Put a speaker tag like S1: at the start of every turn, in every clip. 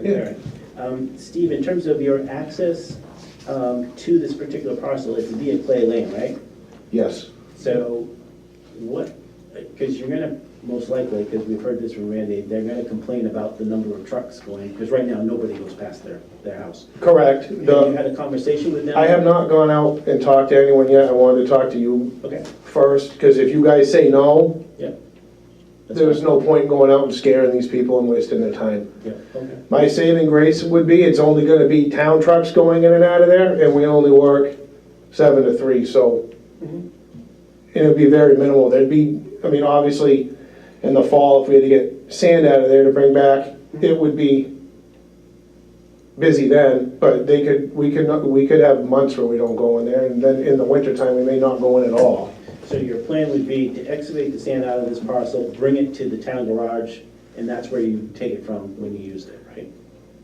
S1: clear. Um, Steve, in terms of your access um, to this particular parcel, it's via Clay Lane, right?
S2: Yes,
S1: So what, because you're gonna, most likely, because we've heard this from Randy, they're gonna complain about the number of trucks going, because right now, nobody goes past their, their house.
S2: correct.
S1: Have you
S2: The-
S1: had a conversation with them?
S2: I have not gone out and talked to anyone yet. I wanted to talk to you
S1: Okay,
S2: first, because if you guys say no,
S1: yeah. That's
S2: there's
S1: fine.
S2: no point in going out and scaring these people and wasting their time.
S1: Yeah, okay,
S2: My saving grace would be, it's only gonna be town trucks going in and out of there, and we only work seven to three, so.
S1: Mhm.
S2: And it'd be very minimal, there'd be, I mean, obviously, in the fall, if we had to get sand out of there to bring back, it would be busy then, but they could, we could, not- we could have months where we don't go in there, and then in the wintertime, we may not go in at all.
S1: so your plan would be to excavate the sand out of this parcel, bring it to the town garage, and that's where you take it from when you used it, right?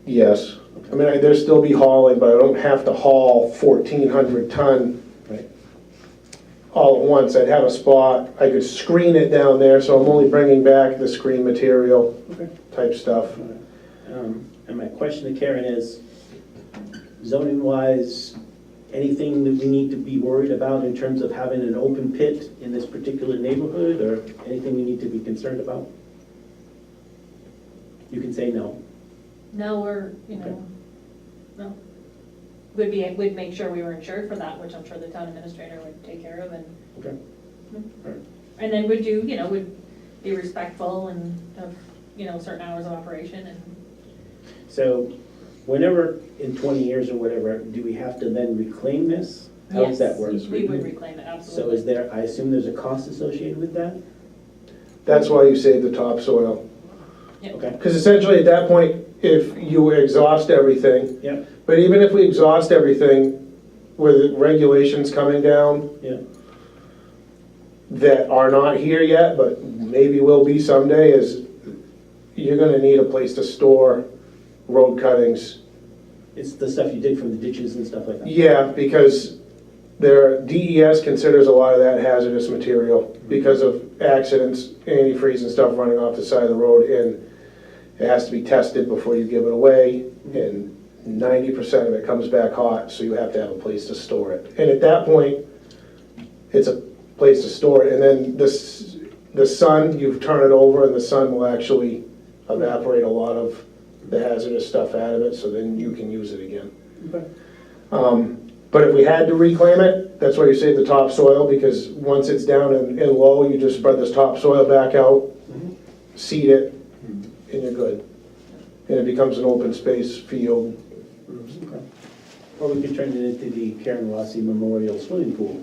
S2: Yes, I mean, I- there'd still be hauling, but I don't have to haul fourteen hundred ton
S1: Right.
S2: all at once. I'd have a spot, I could screen it down there, so I'm only bringing back the screen material
S1: Okay.
S2: type stuff.
S1: Um, And my question to Karen is, zoning-wise, anything that we need to be worried about in terms of having an open pit in this particular neighborhood, or anything we need to be concerned about? You can say no.
S3: Now we're, you
S1: Okay.
S3: know, no. Would be, would make sure we were insured for that, which I'm sure the town administrator would take care of and,
S1: Okay.
S3: and then would do, you know, would be respectful and of, you know, certain hours of operation and,
S1: So whenever, in 20 years or whatever, do we have to then reclaim this? How does that
S3: yes,
S1: work?
S3: we would reclaim it,
S1: So
S3: absolutely.
S1: is there, I assume there's a cost associated with that?
S2: That's why you save the topsoil.
S3: Yep.
S1: Okay,
S2: Because essentially, at that point, if you exhaust everything,
S1: yep,
S2: but even if we exhaust everything with regulations coming down
S1: yeah,
S2: that are not here yet, but maybe will be someday, is you're gonna need a place to store road cuttings
S1: it's the stuff you did from the ditches and stuff like that?
S2: Yeah, because their DES considers a lot of that hazardous material because of accidents, antifreeze and stuff running off the side of the road, and it has to be tested before you give it away, and ninety percent of it comes back hot, so you have to have a place to store it. And at that point, it's a place to store it, and then this, the sun, you turn it over, and the sun will actually evaporate a lot of the hazardous stuff out of it, so then you can use it again.
S1: Okay.
S2: Um, But if we had to reclaim it, that's why you save the topsoil, because once it's down and and low, you just spread this topsoil back out,
S1: Mhm.
S2: seed it, and you're good. And it becomes an open space field.
S1: Okay. Or we could turn it into the Karen Rossi Memorial Swimming Pool,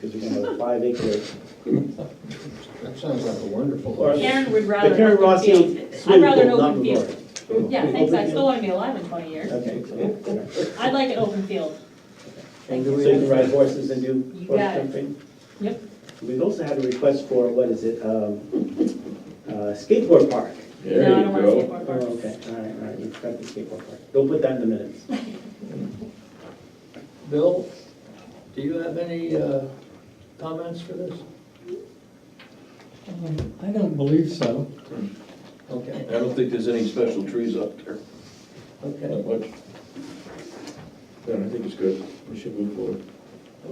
S1: because we're gonna have a five acre.
S4: That sounds like a wonderful
S1: Or-
S4: idea.
S3: Karen would rather.
S1: The Karen
S3: open field.
S1: Rossi
S3: I'd
S1: Swimming
S3: rather an
S1: Pool, not
S3: open
S1: memorial.
S3: field. Yeah, thanks, I still wanna be alive in twenty years.
S1: Okay.
S3: I'd like an open field. Thank
S1: So
S3: you.
S1: you can ride horses and do
S3: You
S1: horse
S3: got it.
S1: jumping?
S3: Yep.
S1: We've also had a request for, what is it, um, uh, skateboard park.
S3: No, I don't want a skateboard
S1: Oh,
S3: park.
S1: okay, all right, all right, we've got the skateboard park. Go put that in the minutes.
S4: Bill, do you have any uh, comments for this?
S5: Um, I don't believe so.
S4: Okay,
S6: I don't think there's any special trees up there,
S4: okay,
S6: not much. No, I think it's good, we should move forward,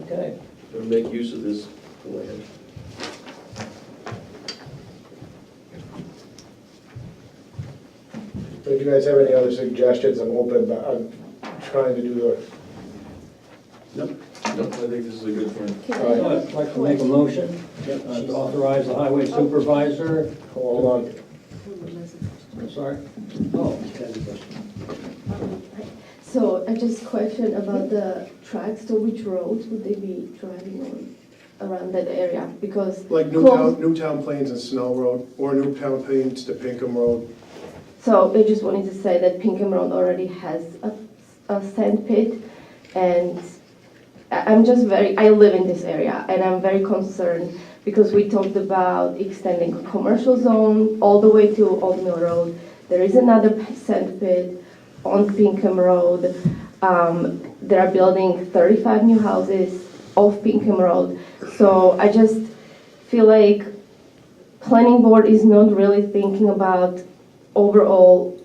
S4: okay.
S6: and make use of this land.
S2: But if you guys have any other suggestions, I'm open, but I'm trying to do the,
S1: Nope,
S6: No, I think this is a good plan.
S4: All right, I'd like to make a motion
S1: yep,
S4: uh, to authorize the highway supervisor.
S2: hold on.
S4: I'm sorry. Oh,
S1: she's got a question.
S7: So I just question about the tracks, so which roads would they be driving on around that area? Because. close-
S2: Newtown Plains and Snell Road, or Newtown Plains to Pinkham Road.
S7: So I just wanted to say that Pinkham Road already has a, a sand pit and I- I'm just very, I live in this area and I'm very concerned because we talked about extending a commercial zone all the way to Old Mill Road. There is another p- sand pit on Pinkham Road. Um, they are building 35 new houses off Pinkham Road. So I just feel like planning board is not really thinking about overall